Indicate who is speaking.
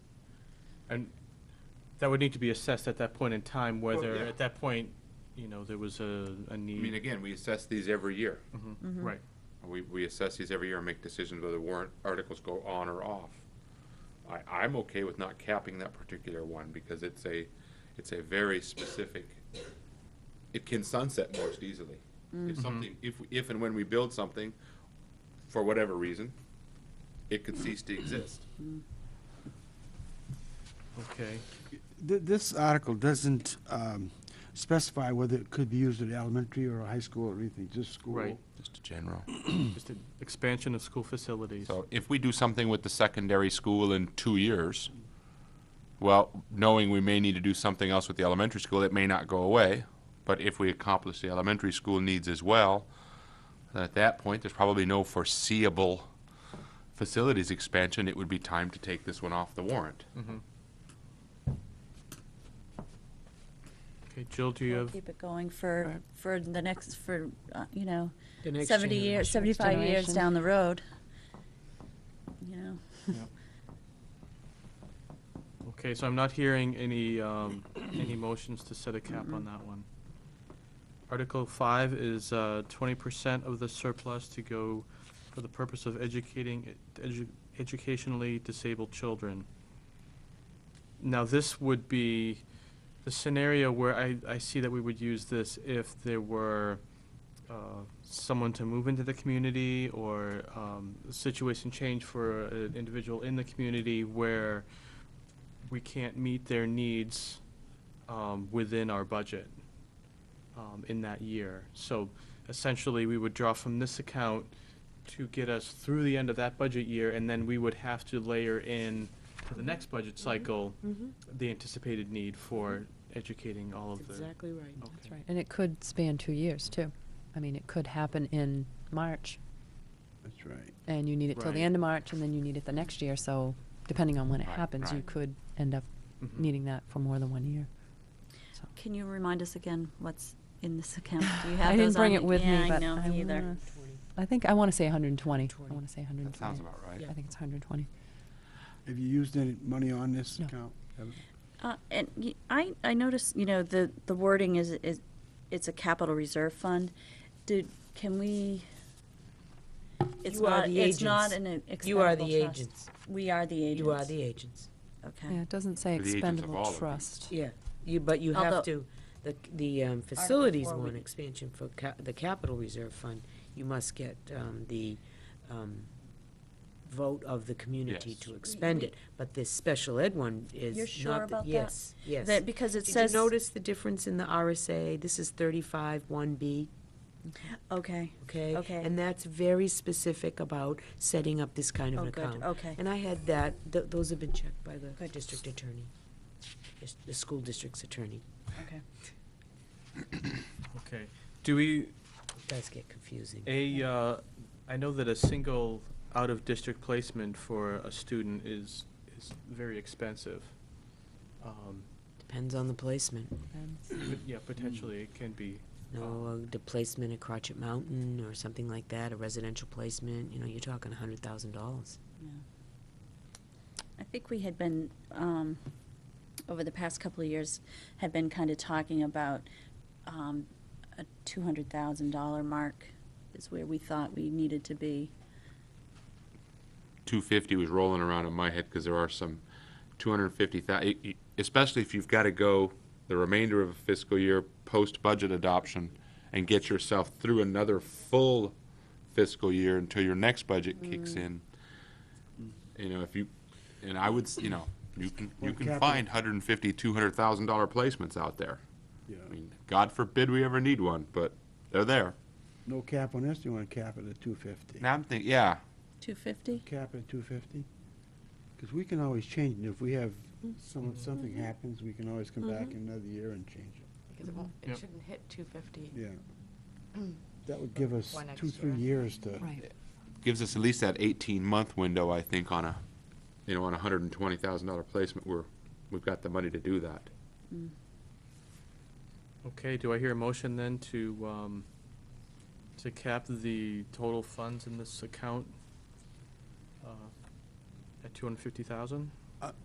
Speaker 1: And that would need to be assessed at that point in time, whether,
Speaker 2: yeah.
Speaker 1: at that point, you know, there was a, a
Speaker 2: I mean,
Speaker 1: need.
Speaker 2: again, we assess these every year.
Speaker 1: Right.
Speaker 2: We, we assess these every year and make decisions whether warrant articles go on or off. I, I'm okay with not capping that particular one because it's a, it's a very specific, it can sunset most easily. If something, if, if and when we build something, for whatever reason, it could cease to exist.
Speaker 1: Okay.
Speaker 3: Th- This article doesn't um, specify whether it could be used at elementary or high school or anything, just school.
Speaker 1: Right.
Speaker 2: Just a general.
Speaker 1: Just an expansion of school facilities.
Speaker 2: So if we do something with the secondary school in two years, well, knowing we may need to do something else with the elementary school, it may not go away. But if we accomplish the elementary school needs as well, then at that point, there's probably no foreseeable facilities expansion. It would be time to take this one off the warrant.
Speaker 1: Mm-hmm. Okay, Jill, do you
Speaker 4: We'll
Speaker 1: have,
Speaker 4: Keep it going for, for the next, for, uh, you know,
Speaker 5: The next
Speaker 4: 70 years,
Speaker 5: generation.
Speaker 4: 75 years
Speaker 5: Generation.
Speaker 4: down the road. You know,
Speaker 1: okay, so I'm not hearing any, um, any motions to set a cap on that one. Article five is, uh, twenty percent of the surplus to go for the purpose of educating, edu- educationally disabled children. Now, this would be the scenario where I, I see that we would use this if there were uh, someone to move into the community or um, a situation change for an individual in the community where we can't meet their needs um, within our budget um, in that year. So essentially, we would draw from this account to get us through the end of that budget year, and then we would have to layer in to the next budget
Speaker 5: Mm-hmm.
Speaker 1: cycle the anticipated need for educating all of
Speaker 5: That's
Speaker 1: the.
Speaker 5: exactly right. That's
Speaker 1: Okay.
Speaker 5: right.
Speaker 6: And it could span two years, too. I mean, it could happen in March,
Speaker 3: That's right.
Speaker 6: and you need it till
Speaker 1: Right.
Speaker 6: the end of March, and then you need it the next year, so depending on when it
Speaker 2: Right,
Speaker 6: happens, you
Speaker 2: right. Mm-hmm.
Speaker 6: could end up
Speaker 1: Mhm.
Speaker 6: needing that for more than one year. So-
Speaker 4: can you remind us again what's in this account? Do you
Speaker 6: I
Speaker 4: have
Speaker 6: didn't
Speaker 4: those on
Speaker 6: bring
Speaker 4: you?
Speaker 6: it with me, but
Speaker 4: Yeah, I know,
Speaker 6: I
Speaker 4: me either.
Speaker 6: wanna- I think, I want to say 120. I
Speaker 5: 20.
Speaker 6: want to say 120.
Speaker 2: That sounds about right.
Speaker 6: I think it's 120.
Speaker 3: Have you used any money on this
Speaker 6: No.
Speaker 3: account? Haven't?
Speaker 4: Uh, And y- I, I noticed, you know, the, the wording is, is, it's a capital reserve fund. Do, can we? It's
Speaker 5: You are
Speaker 4: not,
Speaker 5: the
Speaker 4: it's not
Speaker 5: agents.
Speaker 4: an
Speaker 5: You are the
Speaker 4: expendable trust.
Speaker 5: agents.
Speaker 4: We are the agents.
Speaker 5: You are the agents.
Speaker 4: Okay.
Speaker 6: Yeah, it doesn't say
Speaker 2: For the agents of all of
Speaker 6: expendable
Speaker 2: these.
Speaker 6: trust.
Speaker 5: Yeah, you, but you
Speaker 4: Although-
Speaker 5: have to, the, the um, facilities
Speaker 4: four, we-
Speaker 5: one expansion for ca- the capital reserve fund, you must get um, the um, vote of the community
Speaker 2: Yes.
Speaker 5: to expend it. But this special ed one is
Speaker 4: You're
Speaker 5: not.
Speaker 4: sure
Speaker 5: the-
Speaker 4: about that?
Speaker 5: Yes, yes.
Speaker 4: That, because it
Speaker 5: Did
Speaker 4: says.
Speaker 5: you notice the difference in the RSA? This is thirty-five one B.
Speaker 4: Okay.
Speaker 5: okay?
Speaker 4: Okay.
Speaker 5: And that's very specific about setting up this kind of
Speaker 4: Oh,
Speaker 5: an
Speaker 4: good.
Speaker 5: account.
Speaker 4: Okay.
Speaker 5: And I had that, th- those have been checked by the
Speaker 4: Good.
Speaker 5: district attorney, the- the school district's attorney.
Speaker 4: Okay.
Speaker 1: Okay, do we,
Speaker 5: It does get confusing.
Speaker 1: A, uh, I know that a single out-of-district placement for a student is, is very expensive. Um,
Speaker 5: Depends on the placement.
Speaker 6: Depends.
Speaker 1: but Yeah, potentially, it can be. um,
Speaker 5: No, the placement at Crotchet Mountain or something like that, a residential placement, you know, you're talking a hundred thousand dollars.
Speaker 4: I think we had been, um, over the past couple of years, had been kind of talking about, um, a two hundred thousand dollar mark is where we thought we needed to be.
Speaker 2: two fifty was rolling around in my head because there are some two hundred fifty thousand, especially if you've got to go the remainder of a fiscal year post budget adoption and get yourself through another full fiscal year until your next budget kicks in. You know, if you, and I would, s- you know, you can, you
Speaker 3: Well,
Speaker 2: can
Speaker 3: capital-
Speaker 2: find hundred and fifty, two hundred thousand dollar placements out there.
Speaker 3: Yeah.
Speaker 2: I mean, God forbid we ever need one, but they're there.
Speaker 3: No cap on this, you want to cap it at two fifty?
Speaker 2: Now I'm thinking, yeah,
Speaker 4: Two fifty?
Speaker 3: Cap at two fifty? Because we can always change it, if we have, someone, something happens, we can always come back in another year and change it,
Speaker 7: Because it won't,
Speaker 1: Yep.
Speaker 7: it shouldn't hit two fifty.
Speaker 3: yeah. That would give us
Speaker 7: One
Speaker 3: two,
Speaker 7: extra.
Speaker 3: three years to.
Speaker 6: Right.
Speaker 2: gives us at least that 18 month window, I think, on a, you know, on a $120,000 placement where we've got the money to do that.
Speaker 1: Okay, do I hear a motion then to, um, to cap the total funds in this account, uh, at two hundred fifty thousand?